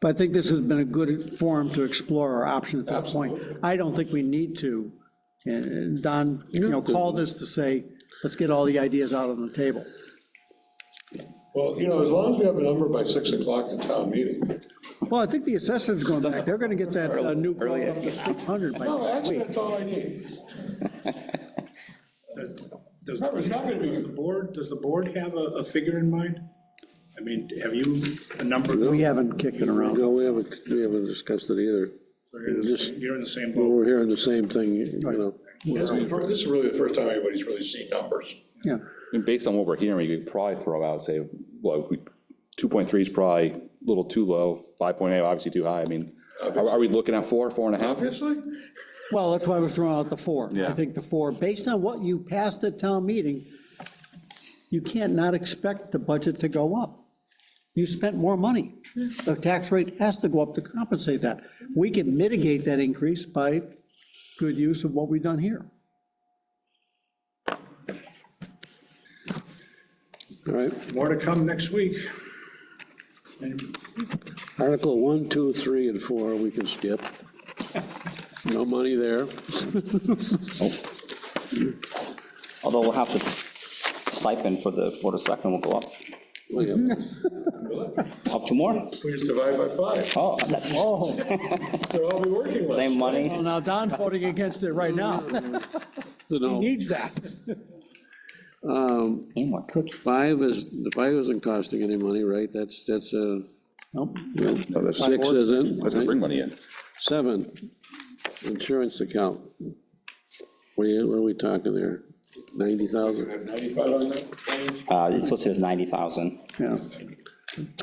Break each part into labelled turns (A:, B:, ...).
A: But I think this has been a good forum to explore our options at this point. I don't think we need to, and- and Don, you know, called us to say, let's get all the ideas out on the table.
B: Well, you know, as long as we have a number by six o'clock in town meeting.
A: Well, I think the assessor's going back, they're gonna get that uh, new quote up to 600 by
B: No, actually, that's all I need.
C: Does,
B: Remember, it's not gonna be-
C: does the board, does the board have a, a figure in mind? I mean, have you a number?
A: We haven't kicked it around.
D: No, we haven't, we haven't discussed it either.
C: You're in the same- you're in the same boat.
D: We're hearing the same thing, you know.
B: This is fir- this is really the first time anybody's really seen numbers.
A: Yeah,
E: And Based on what we're hearing, we could probably throw out, say, well, we- 2.3 is probably a little too low, 5.8 obviously too high. I mean, are are we looking at four, four and a half?
B: Obviously,
A: well, that's why I was throwing out the four. I
E: Yeah.
A: think the four, based on what you passed at town meeting, you can't not expect the budget to go up. You spent more money. The tax rate has to go up to compensate that. We can mitigate that increase by good use of what we've done here.
D: All right,
C: More to come next week.
D: Article one, two, three, and 4, we can skip. No money there.
F: Although we'll have to, stipend for the, for the second will go up, up to more.
B: we just divide by five.
F: Oh, that's,
A: Oh,
B: They'll all be working less.
F: same money.
A: well, now Don's voting against it right now.
D: So
A: He
D: no,
A: needs that.
F: And more cookie.
D: five is, the five isn't costing any money, right? That's, that's a,
A: Nope.
D: six isn't.
E: That's gonna
D: right?
E: bring money in.
D: Seven, insurance account. What are you- what are we talking there? 90,000?
B: Have Ninety-five on that?
F: Uh, it's listed as ninety thousand.
A: Yeah.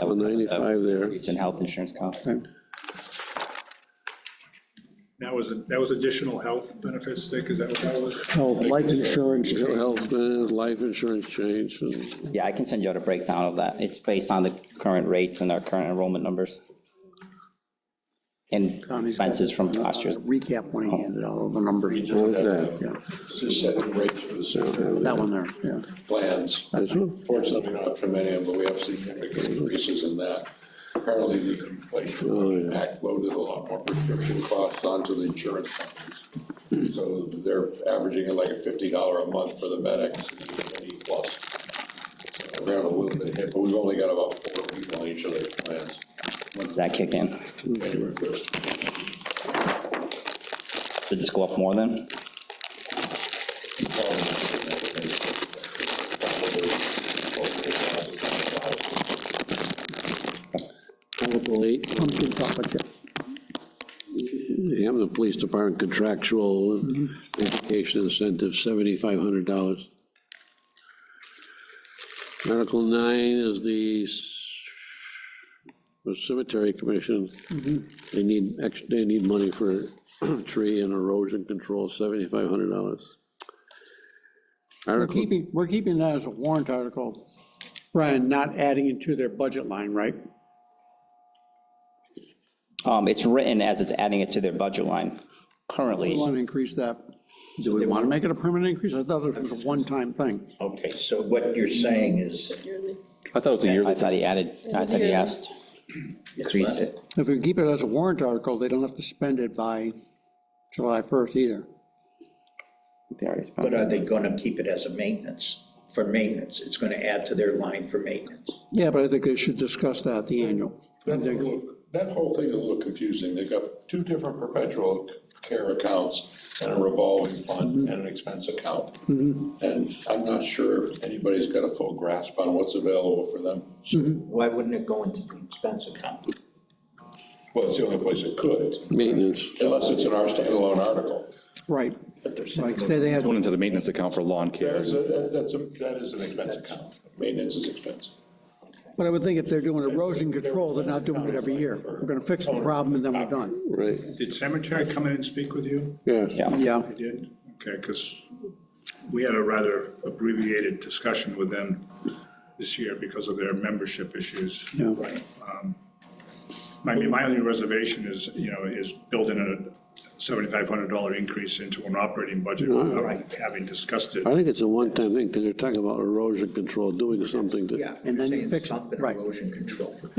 D: Well, 95 there.
F: Recent health insurance costs.
C: That was, that was additional health benefits, Dick, is that what that was?
A: Oh, life insurance.
D: Mental Health, plans, life insurance change, and
F: Yeah, I can send you out a breakdown of that. It's based on the current rates and our current enrollment numbers. And expenses from last year's.
A: Recap when he handed all the numbers.
D: all that.
A: Yeah,
B: Just setting rates for the certain
A: that one there, yeah.
B: plans.
D: That's one.
B: Fortunately, not from any of them, but we have significant increases in that. Apparently, the Inflation
D: Oh, yeah.
B: Reduction Act loaded a lot more prescription costs onto the insurance companies.
D: Hmm.
B: So they're averaging at like a fifty dollar a month for the medics, eighty plus. So We're having a little bit hit, but we've only got about four people on each of their plans.
F: Does that kick in?
B: January first.
F: Did this go up more than?
D: Article eight,
A: Pumpkin chocolate chip.
D: the Hampton Police Department contractual education incentive, $7,500. Article nine is the c- the cemetery commission. They need, ex- they need money for tree and erosion control, $7,500.
A: We're
D: Article
A: keeping, we're keeping that as a warrant article, Brian, not adding it to their budget line, right?
F: Um, it's written as it's adding it to their budget line
A: We
F: currently.
A: want to increase that. Do we want to make it a permanent increase? I thought it was a one-time thing.
G: Okay, so what you're saying is,
E: I thought it was a
F: I
E: yearly.
F: thought he added, I thought he asked, increase it.
A: If we keep it as a warrant article, they don't have to spend it by July 1st either.
G: but uh, are they gonna keep it as a maintenance, for maintenance? It's gonna add to their line for maintenance.
A: Yeah, but I think they should discuss that, at the annual.
B: That's a little- That whole thing is a little confusing. They've got two different perpetual care accounts and a revolving fund and an expense account. And I'm not sure anybody's got a full grasp on what's available for them.
G: Why wouldn't it go into the expense account?
B: Well, it's the only place it could,
D: maintenance.
B: unless it's in our standalone article.
A: Right.
G: But they're saying-
A: Like, say they had,
E: Going into the maintenance account for lawn care.
B: That is, a- that's, a- that is an expense account. Maintenance is expense.
A: but I would think if they're doing erosion control, they're not doing it every year. We're going to fix the problem and then we're done.
D: Right,
C: Did cemetery come in and speak with you?
D: yeah.
A: Yeah.
C: They did? Okay, because we had a rather abbreviated discussion with them this year because of their membership issues.
A: Yeah.
C: Right. Um, I mean, my only reservation is, you know, is building a $7,500 increase into an operating budget without having discussed it.
D: I think it's a one-time thing, because you're talking about erosion control, doing something to.
G: Yeah.
A: And then you
G: saying
A: fix it,
G: something
A: right.
G: Erosion control.